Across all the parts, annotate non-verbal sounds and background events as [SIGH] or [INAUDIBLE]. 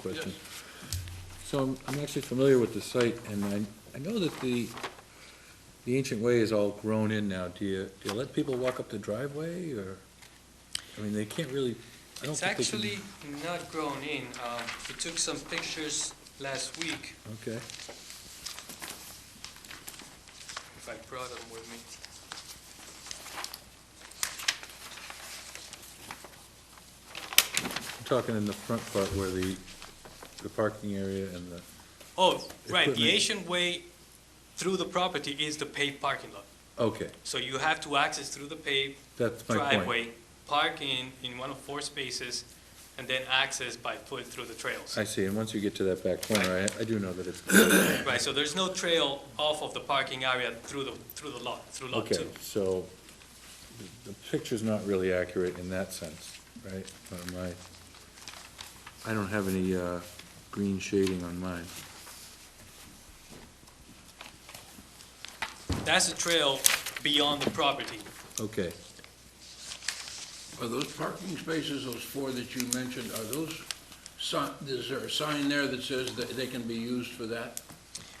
question. So I'm, I'm actually familiar with the site, and I, I know that the, the ancient way is all grown in now. Do you, do you let people walk up the driveway, or? I mean, they can't really, I don't It's think they can. actually not grown in. Um, We took some pictures last week, Okay, if I brought them with me. I'm talking in the front part where the, the parking area and the, Oh, right, the Equipment. Asian way through the property is the paved parking lot. okay, So you have to access through the paved that's my point. driveway, park in, in one of four spaces, and then access by foot through the trails. I see, and once you get to that back corner, I, I do know that it's, Right, so there's no trail off of the parking area through the, through the lot, through lot okay, two. so the- the picture's not really accurate in that sense, right? On my, I don't have any, uh, green shading on mine. That's a trail beyond the property. Okay, Are those parking spaces, those four that you mentioned, are those, si- is there a sign there that says that they can be used for that?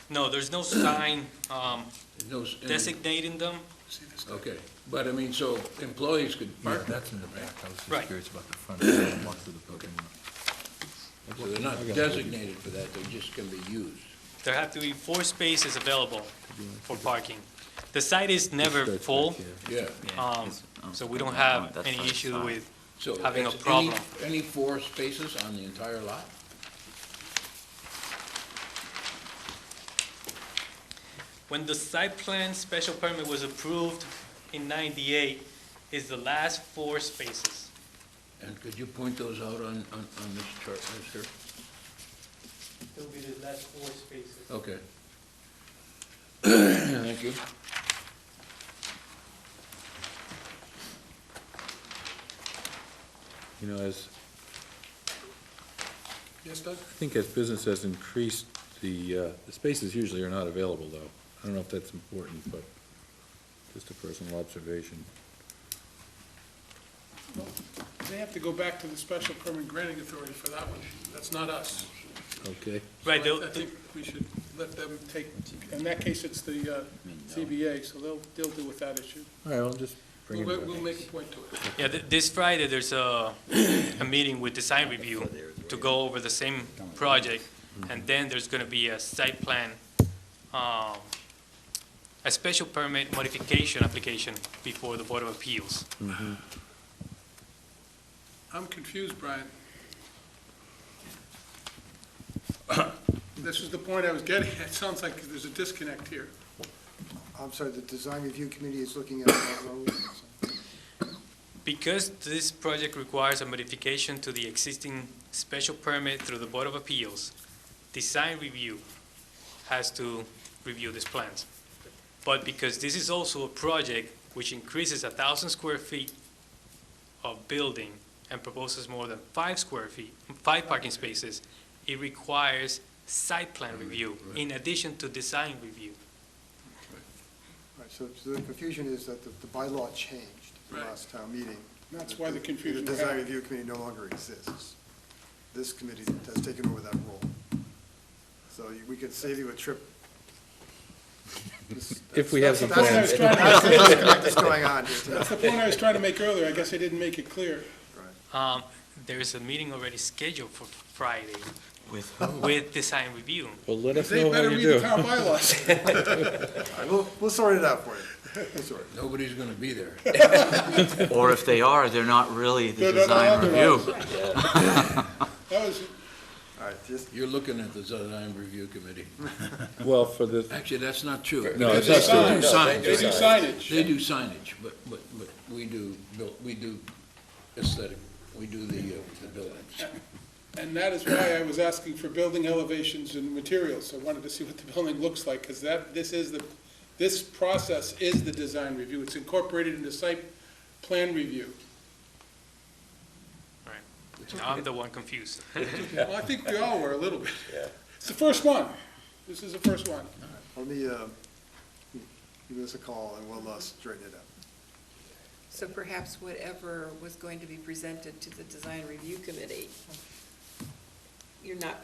No, there's no sign um, No s- and- designating them. Okay, but I mean, so employees could Yeah, park there, that's in the right? back, I was Right. just curious about the front, I walked through the building. So they're not designated for that, they just can be used. There have to be four spaces available for parking. The site is never starts back full, here. Yeah, um, so we don't have any issue with, so. Having a it's any- problem. Any four spaces on the entire lot? when the site plan special permit was approved in 98, is the last four spaces. And could you point those out on, on, on this chart, Mr.? It'll be the last four spaces. Okay. [CLEARS THROAT] Thank you. you know, as, Yes, Doug? I think as business has increased, the, uh, the spaces usually are not available, though. I don't know if that's important, but just a personal observation. They have to go back to the special permit granting authority for that one. That's not us. Okay, Right, So I- they'll- I think we should let them take, in that case, it's the uh, CBA, so they'll, they'll deal with that issue. all right, I'll just bring We'll, it back. we'll make a point to it. yeah, th- this Friday, there's a, a meeting with design review to go over the same project, and then there's gonna be a site plan, um, a special permit modification application before the Board of Appeals. I'm confused, Brian. [COUGHS] This is the point I was getting. It sounds like there's a disconnect here. I'm sorry, the design review committee is looking at that road. Because this project requires a modification to the existing special permit through the Board of Appeals, design review has to review these plans. But because this is also a project which increases a thousand square feet of building and proposes more than five square feet, five parking spaces, it requires site plan review in addition to design review. Right, so so the confusion is that the the bylaw changed at the Right. last town meeting. That's why the The confusion design happened. review committee no longer exists. This committee has taken over that role. So you- we could save you a trip. This- [LAUGHS] If we have some That's That's what I plans. was trying to, that's the disconnect that's going on here tonight. that's the point I was trying to make earlier. I guess I didn't make it clear. Right. Um, there is a meeting already scheduled for Friday With with design review. Well, let us They know how better you do. read the town [LAUGHS] bylaws. All right, We'll, we'll sort it out for you. We'll sort it. Nobody's gonna be there. Or if they are, they're not really the They're not design authorized. review. [LAUGHS] That was, All right, just, You're looking at the design review committee. Well, for the, Actually, that's not true. No, it's they not true. do signage. They do signage. They do signage, but, but, but we do, buil- we do aesthetic, we do the, uh, the buildings. And that is why I was asking for building elevations and materials. I wanted to see what the building looks like, because that, this is the, this process is the design review. It's incorporated into site plan review. Now I'm the one confused. [LAUGHS] Well, I think we all were a little bit. It's the first one. This is the first one. let me, uh, give us a call and we'll uh, straighten it out. So perhaps whatever was going to be presented to the design review committee you're not